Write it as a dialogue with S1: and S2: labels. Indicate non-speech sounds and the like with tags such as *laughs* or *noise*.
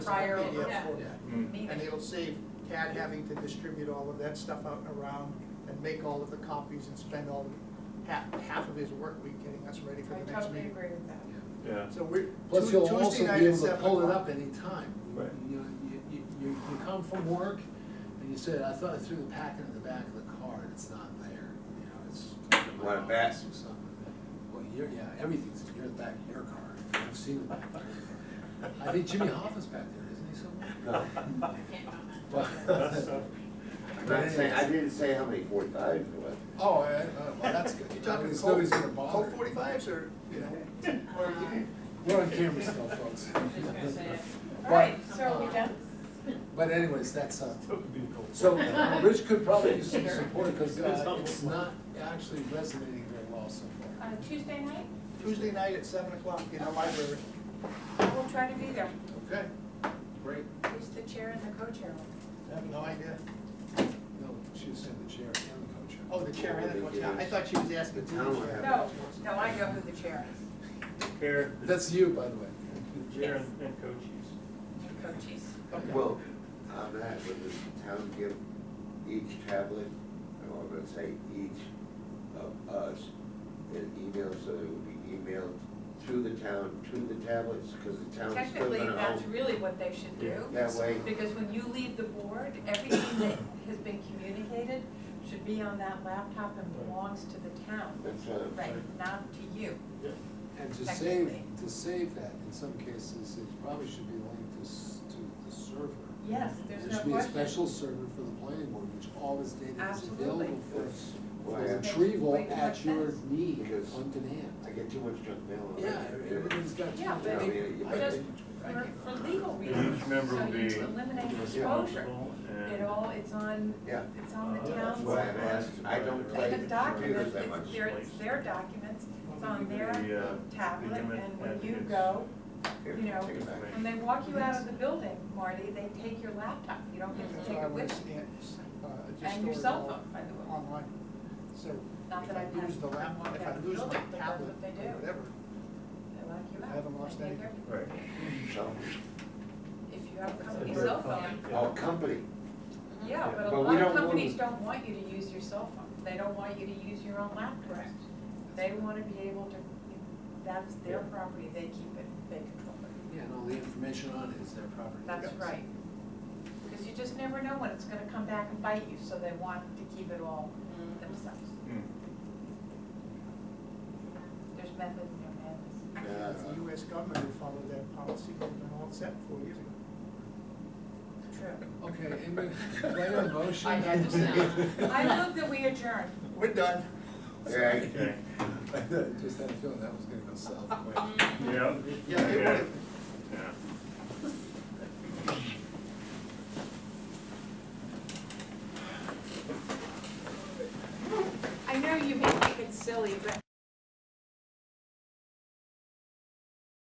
S1: prior,
S2: PDF
S1: yeah.
S2: format.
S3: Mm.
S2: And it'll save Tad having to distribute all of that stuff out and around and make all of the copies and spend all, half, half of his work week getting us ready for
S1: I
S2: the next
S1: totally
S2: meeting.
S1: agree with that.
S2: *laughs*
S3: Yeah,
S2: So we're,
S4: Plus,
S2: Tu-
S4: you'll
S2: Tuesday
S4: also
S2: night
S4: be
S2: at
S4: able to
S2: seven
S4: pull it
S2: o'clock.
S4: up anytime.
S3: Right.
S4: You, know, you, you, you you come from work, and you say, I thought I threw the packet in the back of the car, and it's not there, you know, it's. in my
S5: Want it back?
S4: office or something. Well, you're, yeah, everything's in your back of your car, I've seen the back of your car. I think Jimmy Hoffa's back there, isn't he somewhere? *laughs* Well,
S5: I'm not saying, I didn't say how many four times it was.
S4: Oh, I- I- well, that's good,
S2: You're
S4: That
S2: talking
S4: means
S2: cold,
S4: nobody's gonna bother.
S2: cold forty-fives or, you know,
S1: *laughs*
S2: or
S1: Uh,
S4: We're on camera still, folks.
S1: All right, so are we done?
S4: Uh, But anyways, that's, uh,
S3: that would be cool.
S4: So, uh,
S1: *laughs*
S4: Rich could probably use some support, because it's not actually resonating very well so far.
S1: Uh, Tuesday night,
S2: Tuesday night at seven o'clock in the library.
S1: I will try to be there.
S4: Okay, great.
S1: Who's the chair and the co-chair?
S2: I have no idea.
S4: No, she was saying the chair and the co-chair.
S2: Oh, the chair and the coach, I thought she was asking.
S5: The town one.
S1: No, no, I know who the chair is.
S3: Chair,
S4: That's you, by the way.
S3: chair and and co-chiefs.
S1: and Co-chiefs.
S2: Okay.
S5: Well, on that, would the town give each tablet, or I'm gonna say each of us, an email, so it would be emailed to the town, to the tablets, because the town's still
S1: Technically,
S5: gonna
S1: that's
S5: own.
S1: really what they should do.
S5: That way,
S1: Because when you leave the board, everything that has been communicated should be on that laptop and belongs to the town.
S5: that's, uh,
S1: Right, not to you.
S4: And to save,
S1: Technically.
S4: to save that, in some cases, it probably should be linked to, s- to the server.
S1: Yes, there's no
S4: There should be a
S1: question.
S4: special server for the planning board, which all this data is
S1: Absolutely.
S4: available for,
S5: that's
S4: for
S5: why I-
S4: retrieval
S1: Wait,
S4: at your
S1: that's-
S4: need,
S5: Because-
S4: on demand.
S5: I get too much junk mail.
S4: Yeah, everybody's got.
S1: Yeah,
S5: but
S4: I mean,
S5: it-
S4: I-
S1: just
S4: I
S1: For,
S4: can-
S1: for legal
S3: Each
S1: reasons,
S3: member
S1: so
S3: will
S1: you
S3: be
S1: eliminate exposure.
S3: responsible
S1: It
S3: and.
S1: all, it's on,
S5: Yeah,
S1: it's on the
S3: Uh,
S5: that's
S1: town's,
S5: why I'm asking, I don't
S1: they
S5: play
S1: have
S5: with computers
S1: documents,
S5: that much.
S1: it's their, it's their documents, it's on their
S3: The, uh,
S1: tablet,
S3: become an
S1: and when you
S3: advocate.
S1: go,
S5: Here,
S1: you know,
S5: take it back.
S1: when they walk you out of the building, Marty, they take your laptop, you don't get
S2: That's
S1: to
S2: what
S1: take
S2: I
S1: it
S2: would
S1: with you.
S2: stand, uh, just
S1: And your
S2: store it
S1: cell
S2: all
S1: phone, by the way.
S2: Online, so
S1: Not
S2: if
S1: that
S2: I
S1: I've
S2: lose
S1: had
S2: the
S1: one
S2: laptop, if
S1: out
S2: I
S1: of the
S2: lose my
S1: building, but that's
S2: tablet,
S1: what they
S2: or
S1: do.
S2: whatever,
S1: They lock you
S2: I
S1: out.
S2: haven't lost
S1: They take
S2: anything.
S1: everything.
S3: Right.
S5: So,
S1: If you have a company cell phone,
S3: Yeah.
S5: oh, company,
S1: yeah, but a
S5: But we
S1: lot of
S5: don't want-
S1: companies don't want you to use your cell phone, they don't want you to use your own laptop. They wanna be able to, that's their
S3: Yeah.
S1: property, they keep it, they control it.
S4: Yeah, and all the information on it is their property.
S1: That's right. Because you just never know when it's gonna come back and bite you, so they want to keep it all themselves.
S3: Hmm.
S1: There's method in their madness.
S5: Yeah.
S2: the US government would follow that policy, they've been all set four years ago.
S1: True.
S4: Okay, anybody, do I have a motion?
S1: I had
S4: *laughs*
S1: to say. I move that we adjourn.
S2: We're done.
S5: yeah,
S3: Okay,
S4: *laughs* I Just had a feeling that was gonna go south quick.
S3: yeah.
S2: Yeah, it
S3: Okay.
S2: would've-
S3: Yeah.
S1: I know you may think it's silly, but